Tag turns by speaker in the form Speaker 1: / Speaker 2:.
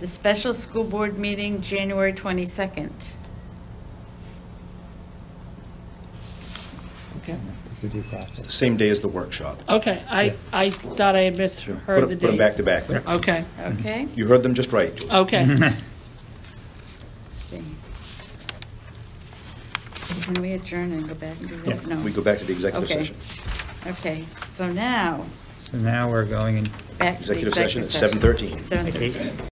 Speaker 1: The special school board meeting, January 22nd.
Speaker 2: Okay, it's a due process.
Speaker 3: Same day as the workshop.
Speaker 4: Okay, I, I thought I had misheard
Speaker 3: Put
Speaker 4: the
Speaker 3: them-
Speaker 4: dates.
Speaker 3: put them back to back.
Speaker 4: Okay,
Speaker 1: Okay?
Speaker 3: You heard them just right, Julie.
Speaker 4: okay.
Speaker 1: see. Can we adjourn and go back and do that? No.
Speaker 3: We go back to the executive
Speaker 1: Okay.
Speaker 3: session.
Speaker 1: Okay, so now,
Speaker 2: So now we're going in
Speaker 1: back to the
Speaker 3: Executive session at 7:13.
Speaker 1: Seven thirteen.